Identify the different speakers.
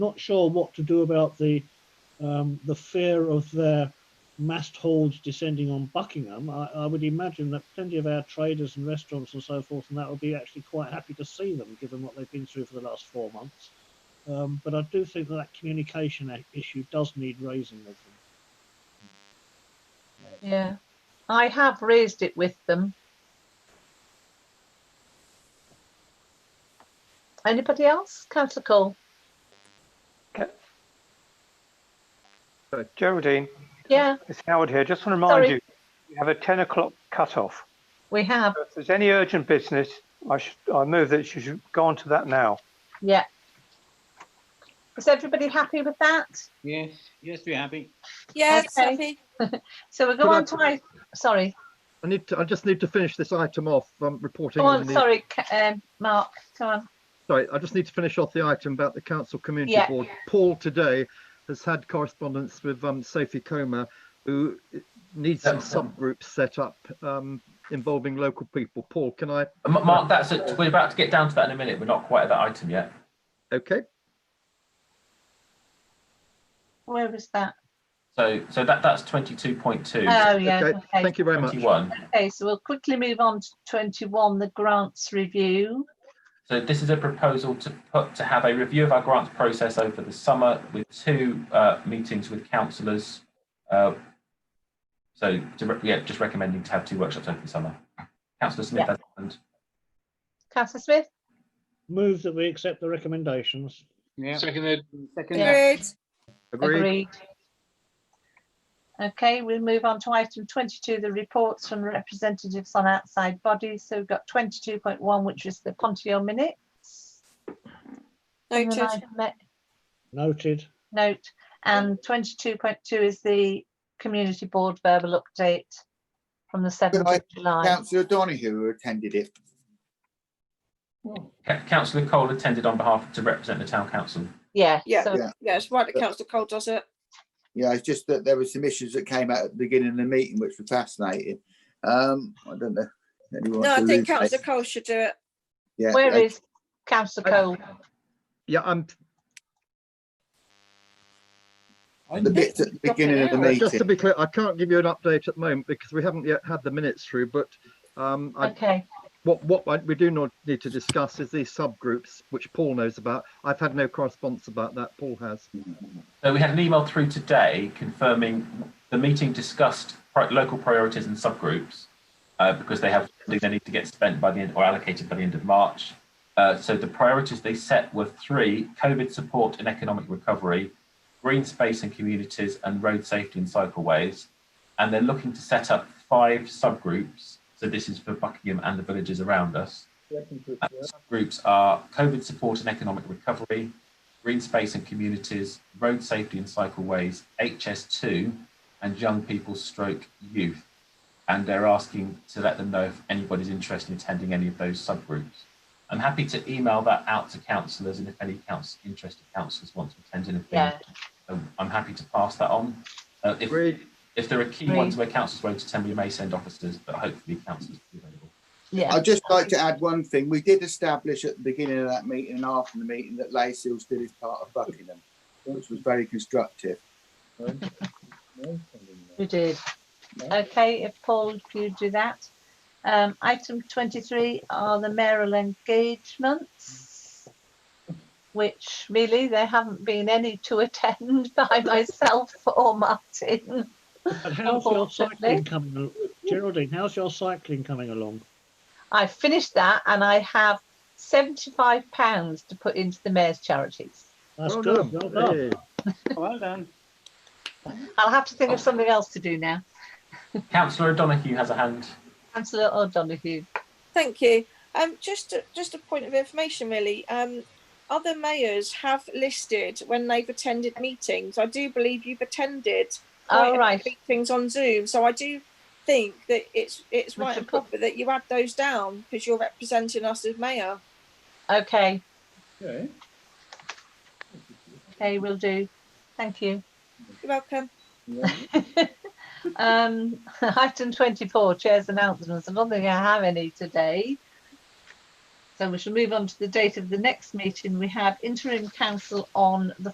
Speaker 1: not sure what to do about the um, the fear of their mast holds descending on Buckingham. I, I would imagine that plenty of our traders and restaurants and so forth and that would be actually quite happy to see them, given what they've been through for the last four months. Um, but I do think that that communication a- issue does need raising with them.
Speaker 2: Yeah, I have raised it with them. Anybody else? Councillor Cole?
Speaker 3: Uh, Geraldine,
Speaker 2: Yeah,
Speaker 3: it's Howard here. Just want to
Speaker 2: Sorry.
Speaker 3: remind you, you have a 10 o'clock cut-off.
Speaker 2: we have.
Speaker 3: So If there's any urgent business, I should, I move that you should go on to that now.
Speaker 2: Yeah. Is everybody happy with that?
Speaker 4: Yes, yes, we're happy.
Speaker 5: Yes,
Speaker 2: Okay.
Speaker 5: happy.
Speaker 2: So we'll go
Speaker 6: Could I
Speaker 2: on to my, sorry,
Speaker 6: I need to, I just need to finish this item off, um, reporting
Speaker 2: go on,
Speaker 6: on the,
Speaker 2: Oh, sorry, Ca- um, Mark, come on.
Speaker 6: sorry, I just need to finish off the item about the council community
Speaker 2: Yeah.
Speaker 6: board. Paul today has had correspondence with, um, Sophie Comer, who needs some subgroups set up, um, involving local people. Paul, can I,
Speaker 7: M- Mark, that's it. We're about to get down to that in a minute. We're not quite at that item yet.
Speaker 6: okay?
Speaker 2: Where is that?
Speaker 7: So, so that that's twenty-two point two.
Speaker 2: Oh, yeah,
Speaker 6: Okay,
Speaker 2: okay.
Speaker 6: thank you very much.
Speaker 7: Twenty-one.
Speaker 2: Okay, so we'll quickly move on to twenty-one, the grants review.
Speaker 7: So this is a proposal to put to have a review of our grants process over the summer with two uh, meetings with councillors. Uh, so to re- yeah, just recommending to have two workshops over the summer. Councillor Smith,
Speaker 2: Yeah.
Speaker 7: and
Speaker 2: Councillor Smith?
Speaker 1: Move that we accept the recommendations.
Speaker 4: Yeah.
Speaker 8: Seconded.
Speaker 2: Yeah.
Speaker 4: Second,
Speaker 5: Agreed.
Speaker 6: Agreed?
Speaker 2: Okay, we'll move on to item twenty-two, the reports from representatives on outside bodies. So we've got twenty-two point one, which is the Pontio minutes. And
Speaker 5: Noted.
Speaker 2: I've met-
Speaker 1: Noted.
Speaker 2: Note, and twenty-two point two is the community board verbal update from the seventh of
Speaker 9: night,
Speaker 2: July.
Speaker 9: Councillor Donahue who attended it.
Speaker 7: Ca- councillor Cole attended on behalf to represent the town council.
Speaker 2: Yeah,
Speaker 5: Yeah.
Speaker 2: so,
Speaker 9: Yeah.
Speaker 5: Yeah, it's right that councillor Cole does it.
Speaker 9: Yeah, it's just that there were some issues that came out at the beginning of the meeting, which were fascinating. Um, I don't know. if anyone
Speaker 5: No,
Speaker 9: wants
Speaker 5: I
Speaker 9: to
Speaker 5: think
Speaker 9: allude to it.
Speaker 5: councillor Cole should do it.
Speaker 9: Yeah,
Speaker 2: where
Speaker 9: okay.
Speaker 2: is councillor
Speaker 6: I-
Speaker 2: Cole?
Speaker 6: Yeah, I'm,
Speaker 9: uh, The bits at the beginning of the
Speaker 6: Uh, Just to
Speaker 9: meeting.
Speaker 6: be clear, I can't give you an update at the moment because we haven't yet had the minutes through, but um, I,
Speaker 2: Okay,
Speaker 6: what, what I- we do not need to discuss is these subgroups, which Paul knows about. I've had no correspondence about that. Paul has.
Speaker 7: So we had an email through today confirming the meeting discussed pri- local priorities and subgroups uh, because they have something they need to get spent by the end or allocated by the end of March. Uh, so the priorities they set were three: COVID support and economic recovery, green space and communities, and road safety and cycleways. And they're looking to set up five subgroups. So this is for Buckingham and the villages around us. Uh, Subgroups are COVID support and economic recovery, green space and communities, road safety and cycleways, HS2, and young people stroke youth. And they're asking to let them know if anybody's interested in attending any of those subgroups. I'm happy to email that out to councillors and if any council, interested councillors want to attend anything,
Speaker 2: yeah,
Speaker 7: um, I'm happy to pass that on. Uh, if,
Speaker 6: Agreed.
Speaker 7: if there are key
Speaker 2: Agreed.
Speaker 7: ones where councillors won't attend, we may send officers, but hopefully councillors will be available.
Speaker 2: yeah.
Speaker 9: I'd just like to add one thing. We did establish at the beginning of that meeting and after the meeting that Laysil still is part of Buckingham, which was very constructive.
Speaker 2: You did. Okay, if Paul, if you do that. Um, item twenty-three are the mayoral engagements, which really there haven't been any to attend by myself or Martin.
Speaker 1: And how's your
Speaker 2: Unfortunately.
Speaker 1: cycling coming, al- Geraldine? How's your cycling coming along?
Speaker 2: I finished that and I have seventy-five pounds to put into the mayor's charities.
Speaker 1: That's
Speaker 6: Well
Speaker 1: good. Well
Speaker 6: done.
Speaker 1: done.
Speaker 6: Hey.
Speaker 4: Well done.
Speaker 2: I'll have to think of something else to do now.
Speaker 7: Councillor O'Donoghue has a hand.
Speaker 2: Councillor O'Donoghue.
Speaker 5: Thank you. Um, just a, just a point of information, really. Um, other mayors have listed when they've attended meetings. I do believe you've attended quite a
Speaker 2: All
Speaker 5: few
Speaker 2: right,
Speaker 5: meetings on Zoom, so I do think that it's it's
Speaker 2: We
Speaker 5: right
Speaker 2: should
Speaker 5: and proper that you add those down because you're representing us as mayor.
Speaker 2: okay,
Speaker 4: Okay.
Speaker 2: okay, we will do. Thank you.
Speaker 5: You're welcome.
Speaker 2: Um, item twenty-four, chairs announcements. I don't think I have any today. So we shall move on to the date of the next meeting. We have interim council on the